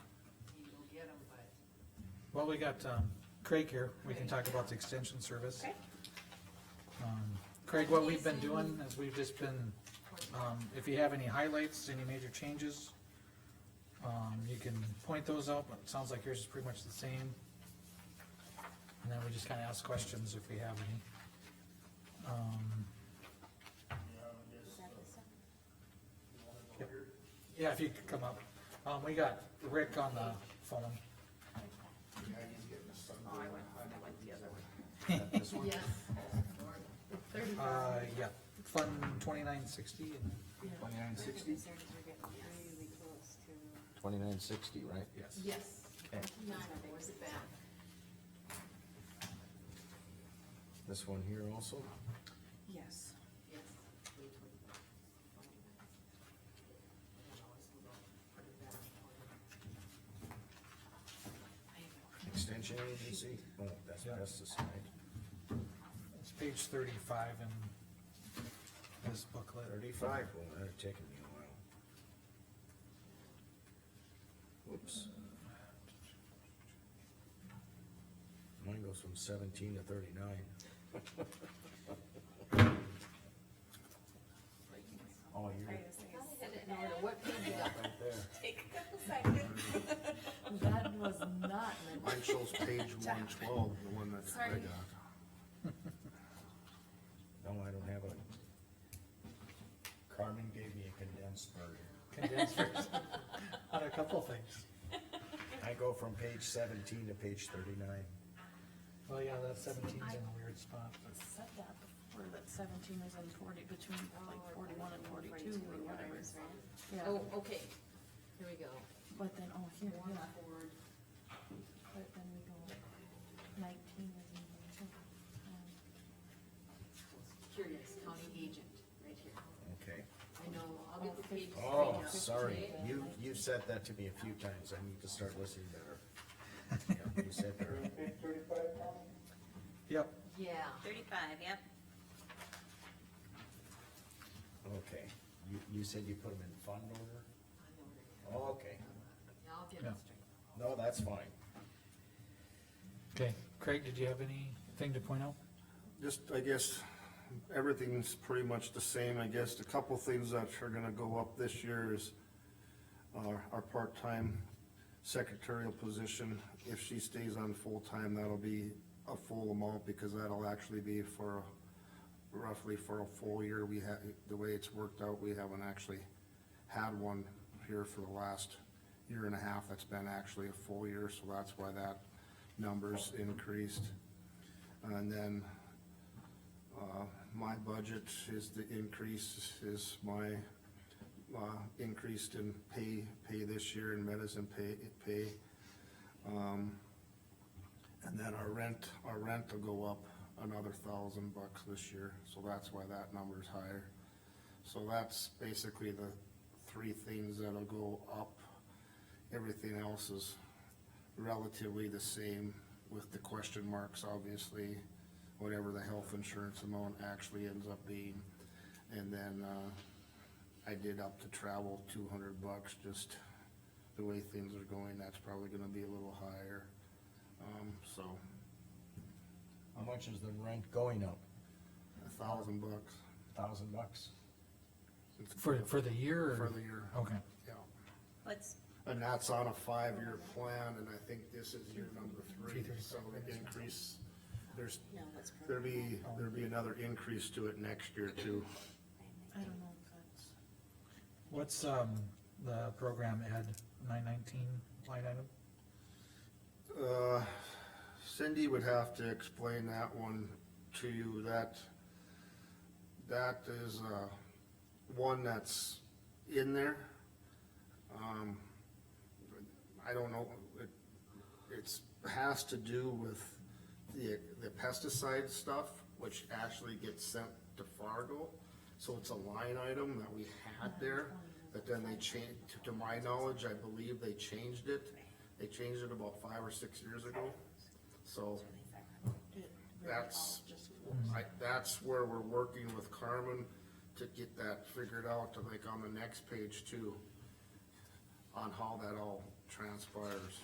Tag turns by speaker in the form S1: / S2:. S1: Well, we got, um, Craig here, we can talk about the extension service.
S2: Okay.
S1: Um, Craig, what we've been doing is we've just been, um, if you have any highlights, any major changes, um, you can point those out, but it sounds like yours is pretty much the same. And then we just kinda ask questions if we have any. Um, Yeah, if you could come up. Um, we got Rick on the phone.
S3: Yes. Thirty
S1: Uh, yeah, Fund twenty-nine sixty and,
S4: Twenty-nine sixty? Twenty-nine sixty, right?
S1: yes.
S3: Yes.
S4: Okay.
S3: Nine, where's it back?
S4: This one here also?
S2: Yes.
S3: Yes.
S4: Extension agency? Oh, that's
S1: Yeah.
S4: pesticide.
S1: It's page thirty-five in this booklet.
S4: Thirty-five, well, that'd taken me a while. Whoops. Mine goes from seventeen to thirty-nine. Oh, you're
S2: I
S4: right
S2: was thinking,
S3: No matter what page you got.
S4: there.
S2: take a second.
S3: That was not meant.
S5: Mine shows page one twelve, the one that I
S3: Sorry.
S5: got.
S4: No, I don't have a. Carmen gave me a condensed version.
S1: Condensers on a couple things.
S4: I go from page seventeen to page thirty-nine.
S1: Well, yeah, that seventeen's in a weird spot.
S6: set that before, that seventeen is in forty, between like forty-one and forty-two or whatever. Yeah,
S3: Oh, okay, here we go.
S6: but then, oh, here,
S3: One
S6: yeah,
S3: forward,
S6: but then we go nineteen is in there too. Um,
S3: here it is, county agent, right here.
S4: Okay.
S3: I know, I'll get the page.
S4: Oh,
S3: straight up
S4: sorry,
S3: today.
S4: you, you've said that to me a few times, I need to start listening better. Yeah, You said that.
S1: Yep,
S3: Yeah,
S2: Thirty-five, yep.
S4: okay, you, you said you put them in fund order?
S3: I know where it
S4: Okay,
S3: is. Now I'll get
S1: Yeah.
S3: it straight.
S4: no, that's fine.
S1: okay. Craig, did you have anything to point out?
S5: Just, I guess, everything's pretty much the same, I guess. A couple things that are gonna go up this year is our, our part-time secretarial position. If she stays on full-time, that'll be a full amount because that'll actually be for roughly for a full year. We have, the way it's worked out, we haven't actually had one here for the last year and a half. That's been actually a full year, so that's why that number's increased. And then uh, my budget is the increase, is my, uh, increased in pay, pay this year in medicine pay, pay. Um, And then our rent, our rent will go up another thousand bucks this year, so that's why that number's higher. So that's basically the three things that'll go up. Everything else is relatively the same with the question marks, obviously, whatever the health insurance amount actually ends up being. And then, uh, I did up the travel two hundred bucks, just the way things are going, that's probably gonna be a little higher. Um, so,
S4: How much is the rent going up?
S5: a thousand bucks
S4: Thousand bucks?
S1: For, for the year or?
S5: for the year,
S1: Okay,
S5: yeah.
S2: Let's,
S5: And that's on a five-year plan, and I think this is year number three, so it increase, there's,
S3: No, that's perfect.
S5: there'll be, there'll be another increase to it next year too.
S6: I don't know if that's,
S1: what's, um, the program ed nine nineteen line item?
S5: Uh, Cindy would have to explain that one to you, that, that is, uh, one that's in there. Um, I don't know, it, it's, has to do with the, the pesticide stuff, which actually gets sent to Fargo. So it's a line item that we had there, but then they changed, to my knowledge, I believe they changed it. They changed it about five or six years ago, so
S6: it really all
S5: that's,
S6: just.
S5: I, that's where we're working with Carmen to get that figured out, to like on the next page too, on how that all transpires.